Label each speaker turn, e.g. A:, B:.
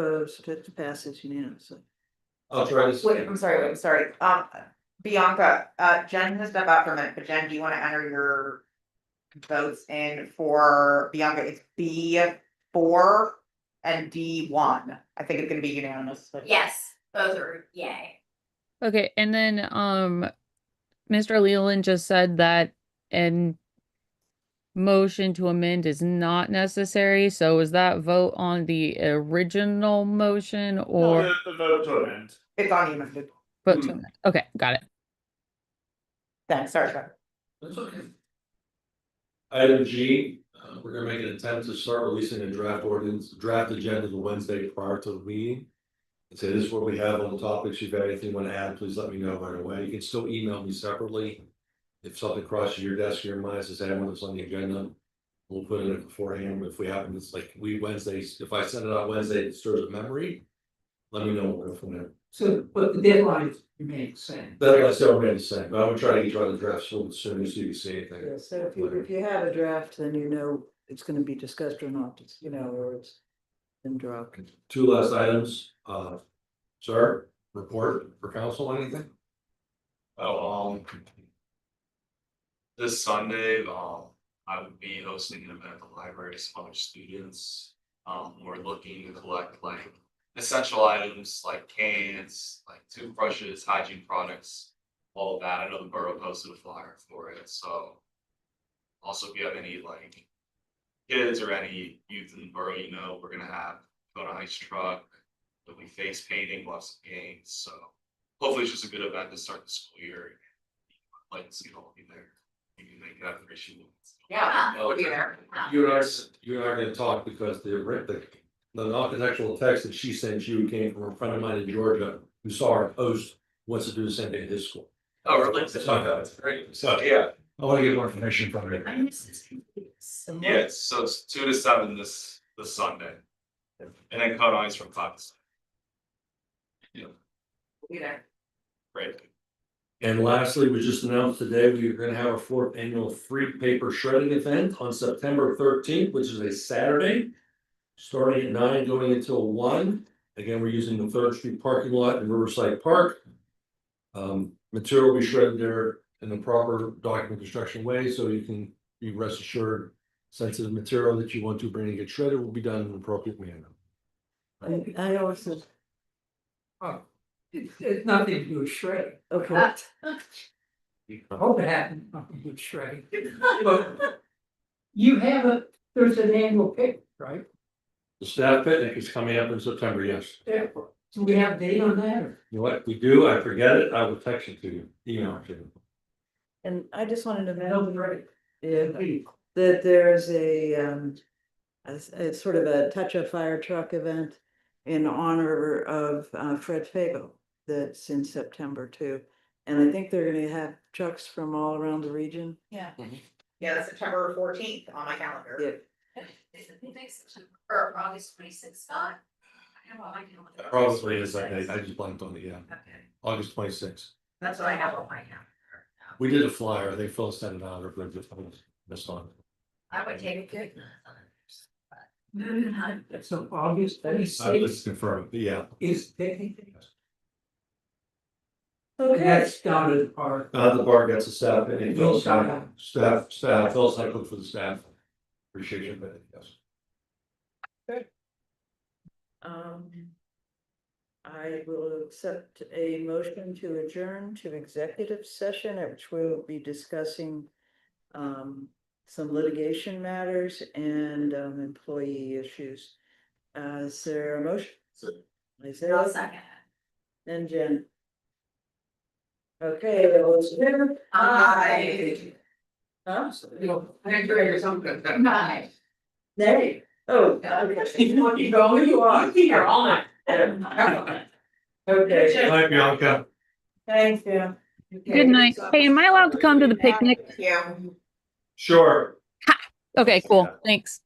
A: opposed, it passes unanimously.
B: I'll try to.
C: Wait, I'm sorry, wait, I'm sorry, um, Bianca, uh, Jen has stepped out for a minute, but Jen, do you wanna enter your? Votes in for Bianca, it's B four and D one, I think it's gonna be unanimous. but-
D: Yes, both are yay.
E: Okay, and then um Mr. Leland just said that an motion to amend is not necessary, so is that vote on the original motion or
F: The vote to amend.
C: It's on you,
E: vote to amend? Okay, got it.
C: then, sorry, Trevor.
B: That's okay. Item G, uh, we're gonna make an attempt to start releasing a draft ordinance, draft agenda the Wednesday prior to the meeting. And say this is what we have on the topics. If you have anything you want to add, please let me know right away. You can still email me separately. If something crosses your desk or your mind, says, hey, I want this on the agenda. We'll put it in beforehand. If we happen, it's like we Wednesdays, if I send it out Wednesday, it stirs a memory. Let me know. we'll go from there.
G: So, but the deadline is May same.
B: That- That's what I'm gonna say, but I'm gonna try to get you on the draft soon, as soon as you see anything.
A: Yeah, so if you, if you have a draft, then you know it's gonna be discussed or not, it's, you know, or it's been dropped.
B: Two last items, uh, sir, report for council, anything?
F: Oh, um. This Sunday, um, I would be hosting an event at the library to sponsor students. Um, we're looking to collect like essential items like cans, like toothbrushes, hygiene products. All of that, I know the borough posted a flyer for it, so. Also, if you have any like. Kids or any youth in the borough, you know, we're gonna have, go to ice truck. There'll be face painting, lots of games, so hopefully it's just a good event to start the school year. I'd Like, to see all of you there, maybe make that appreciate.
C: Yeah,
D: Yeah.
F: Oh,
C: we'll be there.
B: You and I, you and I are gonna talk because the, writ- the, the architectural text that she sent you came from a friend of mine in Georgia who saw her post, wants to do the same thing at his school.
F: Oh, really?
B: So, I
F: Great, so, yeah,
B: wanna get more information from her.
F: yeah, so it's two to seven this, this Sunday. And then cut eyes from five to seven,
C: We'll be there.
F: great.
B: And lastly, we just announced today, we're gonna have our fourth annual free paper shredding event on September thirteenth, which is a Saturday. Starting at nine, going until one. Again, we're using the Third Street parking lot in Riverside Park. Um, material will be shredded there in the proper document construction way, so you can be rest assured. Sensitive material that you want to bring and get shredded will be done in an appropriate manner.
A: I, I always said,
G: It's, it's nothing to do with shredding.
D: Ah.
A: okay,
D: Uh,
G: I hope it happened, nothing to do with shredding. But You have a, there's an annual pick, right?
B: The staff picnic is coming up in September, yes.
G: Yeah. Do we have a date on that or?
B: You know what, we do, I forget it, I will text it to you, email it to you.
A: and I just wanted to
G: That'll be
A: mention,
G: great.
A: yeah, that there's a, um. a s- It's sort of a touch of fire truck event in honor of uh, Fred Fago that's in September too. And I think they're gonna have trucks from all around the region.
C: Yeah. Yeah, that's September fourteenth on my calendar.
A: Yeah.
D: Or August twenty sixth, Scott? I have all my calendar.
B: Probably is, I, I just blanked on it, yeah,
D: Okay,
B: August twenty sixth.
D: That's what I have on my calendar.
B: We did a flyer, I think Phil sent it out, or if they just missed on. it.
D: I would take a good. Moving on.
G: So August twenty
B: I
G: sixth
B: Uh, just confirmed, but yeah.
G: is picnic. That's down at the park.
B: Uh, the bar gets a staff, and
G: Phil
B: Phil
G: shot
B: staff,
G: out.
B: staff, staff, Phil's not good for the staff. Appreciate you, but yes.
A: Um. I will accept a motion to adjourn to executive session, at which we'll be discussing. Um, some litigation matters and um employee issues. Uh, is there a motion? Is there
D: I'll
A: a-
D: second.
A: and Jen? Okay, all those in favor?
C: Aye.
A: Huh?
G: I'm sure you're something.
D: Bye.
A: Nay, oh.
G: You want to go, you are. You're on it.
A: Okay,
B: Hi, Bianca.
A: thanks, Jim.
E: Good night. Hey, am I allowed to come to the picnic?
C: Yeah.
B: Sure.
E: Okay, cool. Thanks.